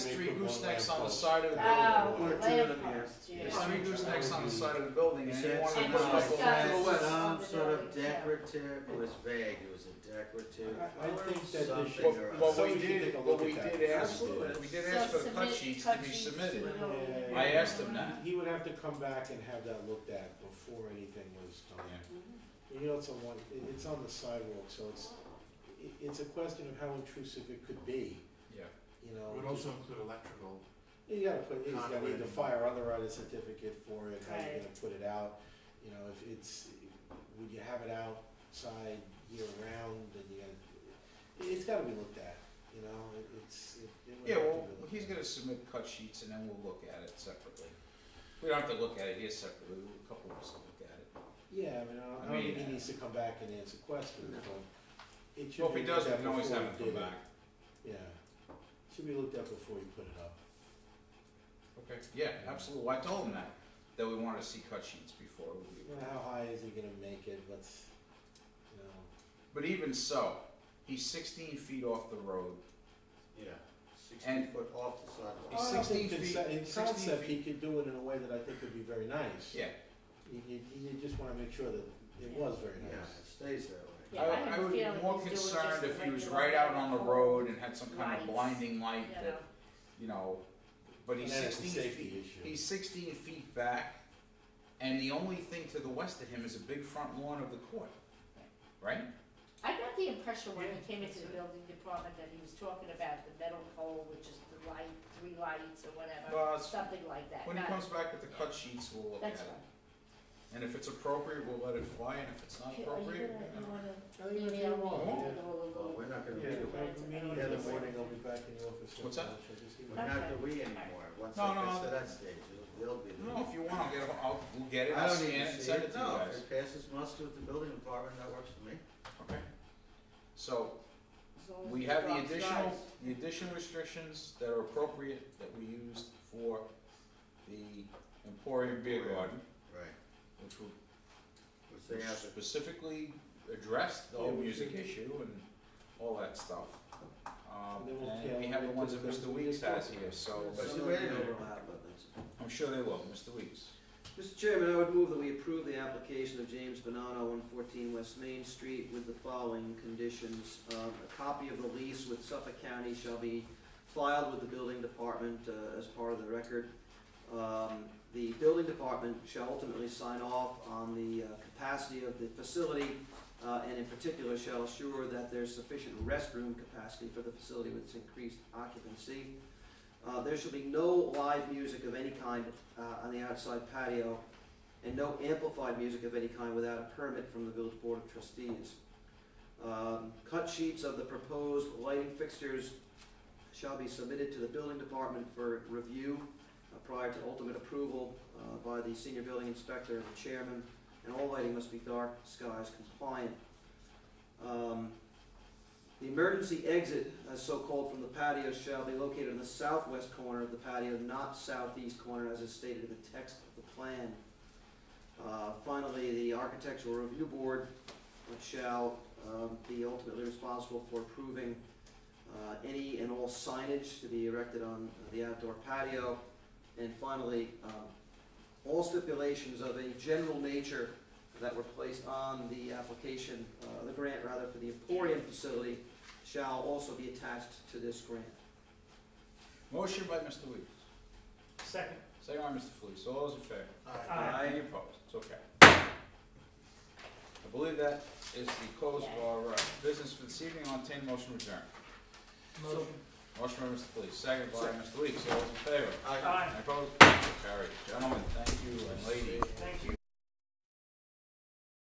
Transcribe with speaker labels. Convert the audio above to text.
Speaker 1: three
Speaker 2: put one
Speaker 1: goosenecks on the
Speaker 2: lamppost.
Speaker 1: side of the
Speaker 3: Oh,
Speaker 1: building.
Speaker 2: One or
Speaker 3: lamp
Speaker 2: two of them
Speaker 3: posts,
Speaker 2: here.
Speaker 3: yeah.
Speaker 1: There's three goosenecks on the side of the building
Speaker 4: He
Speaker 1: and they
Speaker 4: said
Speaker 1: want to
Speaker 4: something
Speaker 3: And
Speaker 1: know.
Speaker 3: it's
Speaker 4: about
Speaker 3: got
Speaker 4: some sort of
Speaker 3: visibility, yeah.
Speaker 4: decorative, it was vague, it was a decorative.
Speaker 2: I think that they should.
Speaker 4: Well,
Speaker 2: uh,
Speaker 1: But, but we
Speaker 2: somebody should
Speaker 1: did,
Speaker 2: take a look
Speaker 1: but we
Speaker 2: at that
Speaker 1: did
Speaker 2: before
Speaker 1: ask,
Speaker 2: we do
Speaker 1: we
Speaker 2: this.
Speaker 1: did ask for the cut
Speaker 3: Submit-
Speaker 1: sheets to
Speaker 3: cut
Speaker 1: be
Speaker 3: sheets
Speaker 1: submitted.
Speaker 3: to the-
Speaker 1: I asked him that.
Speaker 2: He would have to come back and have that looked at before anything was done. You know, it's a one, it- it's on the sidewalk, so it's, i- it's a question of how intrusive it could be,
Speaker 1: Yeah.
Speaker 2: you know.
Speaker 5: Would also include electrical.
Speaker 2: You gotta put, you gotta need the
Speaker 5: Conduit.
Speaker 2: fire underwriter certificate for it, how you're
Speaker 3: Right.
Speaker 2: gonna put it out, you know, if it's, would you have it outside year round, and you gotta, it- it's gotta be looked at, you know, it, it's, it. it would
Speaker 1: Yeah,
Speaker 2: have to
Speaker 1: well,
Speaker 2: be looked
Speaker 1: he's
Speaker 2: at.
Speaker 1: gonna submit cut sheets and then we'll look at it separately. We don't have to look at it here separately, a couple of us will look at it.
Speaker 2: Yeah, I mean, I don't, I
Speaker 1: I
Speaker 2: don't think
Speaker 1: mean,
Speaker 2: he needs to come back and answer questions, but it should
Speaker 1: Well, if
Speaker 2: be
Speaker 1: he
Speaker 2: looked
Speaker 1: does, we
Speaker 2: at
Speaker 1: can always
Speaker 2: before
Speaker 1: have
Speaker 2: you
Speaker 1: him
Speaker 2: did
Speaker 1: come
Speaker 2: it.
Speaker 1: back.
Speaker 2: Yeah, should be looked at before you put it up.
Speaker 1: Okay. Yeah, absolutely, I told him that, that we wanted to see cut sheets before we.
Speaker 2: You know, how high is he gonna make it, what's, you know.
Speaker 1: But even so, he's sixteen feet off the road.
Speaker 5: Yeah, sixty
Speaker 1: And-
Speaker 5: foot off the sidewalk.
Speaker 1: He's
Speaker 2: I don't
Speaker 1: 16
Speaker 2: think
Speaker 1: feet-
Speaker 2: conce- In
Speaker 1: 16
Speaker 2: concept,
Speaker 1: feet.
Speaker 2: he could do it in a way that I think would be very nice.
Speaker 1: Yeah,
Speaker 2: You, you, you just wanna make sure that it was very
Speaker 4: Yeah,
Speaker 2: nice.
Speaker 4: it stays that
Speaker 3: Yeah,
Speaker 4: way.
Speaker 1: I,
Speaker 3: I
Speaker 1: would-
Speaker 3: have
Speaker 1: I
Speaker 3: a
Speaker 1: would be
Speaker 3: feeling
Speaker 1: more
Speaker 3: he's doing just
Speaker 1: concerned
Speaker 3: the
Speaker 1: if he was
Speaker 3: regular
Speaker 1: right out on the
Speaker 3: whole
Speaker 1: road and had some kind of
Speaker 3: lights,
Speaker 1: blinding light
Speaker 3: you know.
Speaker 1: that, you know, but he's
Speaker 2: And that's a
Speaker 1: sixteen
Speaker 2: safety
Speaker 1: feet,
Speaker 2: issue.
Speaker 1: he's sixteen feet back, and the only thing to the west of him is a big front lawn of the court, right?
Speaker 3: I got the impression when he came into the building department that he was talking about the metal pole, which is the light, three lights or whatever,
Speaker 1: Well, it's-
Speaker 3: something like that.
Speaker 1: when he
Speaker 3: Not-
Speaker 1: comes back with the cut sheets, we'll look at it,
Speaker 3: That's right.
Speaker 1: and if it's appropriate, we'll let it fly, and if it's not
Speaker 3: Okay, Are you gonna,
Speaker 1: appropriate, Oh.
Speaker 3: Oh,
Speaker 1: you know.
Speaker 3: you wanna
Speaker 2: I think it's
Speaker 3: email me?
Speaker 2: wrong, yeah.
Speaker 4: Well, we're not gonna do it,
Speaker 3: Yeah.
Speaker 2: Yeah, meeting in the morning, I'll be back in the office.
Speaker 1: What's that?
Speaker 4: we're not the we anymore, once
Speaker 1: No,
Speaker 4: it
Speaker 1: no,
Speaker 4: gets
Speaker 1: no.
Speaker 4: to that stage, it'll- they'll be the
Speaker 1: No, if you want, I'll get, it- I'll, we'll get it,
Speaker 4: I
Speaker 1: I'll
Speaker 4: don't
Speaker 1: scan
Speaker 4: need
Speaker 1: it,
Speaker 4: to
Speaker 1: and
Speaker 4: see
Speaker 1: send
Speaker 4: it,
Speaker 1: it to you
Speaker 4: no,
Speaker 1: guys,
Speaker 4: if it passes muster with the building department, that works for me.
Speaker 1: okay? So,
Speaker 3: As long as
Speaker 1: We
Speaker 3: the
Speaker 1: have the
Speaker 3: dog's
Speaker 1: additional,
Speaker 3: eyes.
Speaker 1: the additional restrictions that are appropriate that we used for the Emporium Beer Garden,
Speaker 4: Right,
Speaker 1: which
Speaker 4: which they
Speaker 1: were
Speaker 4: have to
Speaker 1: specifically addressed the whole music issue and all that stuff. Um,
Speaker 2: And then we'll
Speaker 1: and we have the ones that Mr. Weeks has here, so,
Speaker 4: But
Speaker 1: but
Speaker 4: the way they overlap with it.
Speaker 1: I'm sure they will, Mr. Weeks.
Speaker 6: Mr. Chairman, I would move that we approve the application of James Bonanno, one fourteen West Main Street with the following conditions. Um, a copy of the lease with Suffolk County shall be filed with the building department, uh, as part of the record. Um, the building department shall ultimately sign off on the, uh, capacity of the facility, uh, and in particular shall assure that there's sufficient restroom capacity for the facility with its increased occupancy. Uh, there shall be no live music of any kind uh, on the outside patio, and no amplified music of any kind without a permit from the village board of trustees. Um, cut sheets of the proposed lighting fixtures shall be submitted to the building department for review uh, prior to ultimate approval uh, by the senior building inspector and the chairman, and all lighting must be dark skies compliant. Um, the emergency exit, as so called from the patio, shall be located in the southwest corner of the patio, not southeast corner, as is stated in the text of the plan. Uh, Finally, the architectural review board uh, shall um, be ultimately responsible for approving uh, any and all signage to be erected on the outdoor patio. And finally, um, all stipulations of a general nature that were placed on the application, uh, the grant rather, for the Emporium facility shall also be attached to this grant.
Speaker 1: Motion by Mr. Weeks,
Speaker 7: Second.
Speaker 1: second by Mr. Felice, all those in favor?
Speaker 7: Aye.
Speaker 1: Any opposed? It's okay. I believe that is the close of our uh, business for this evening. I'll entertain a motion to adjourn.
Speaker 7: Motion.
Speaker 1: Motion by Mr. Felice, second by Mr. Weeks. All those in favor?
Speaker 4: Aye.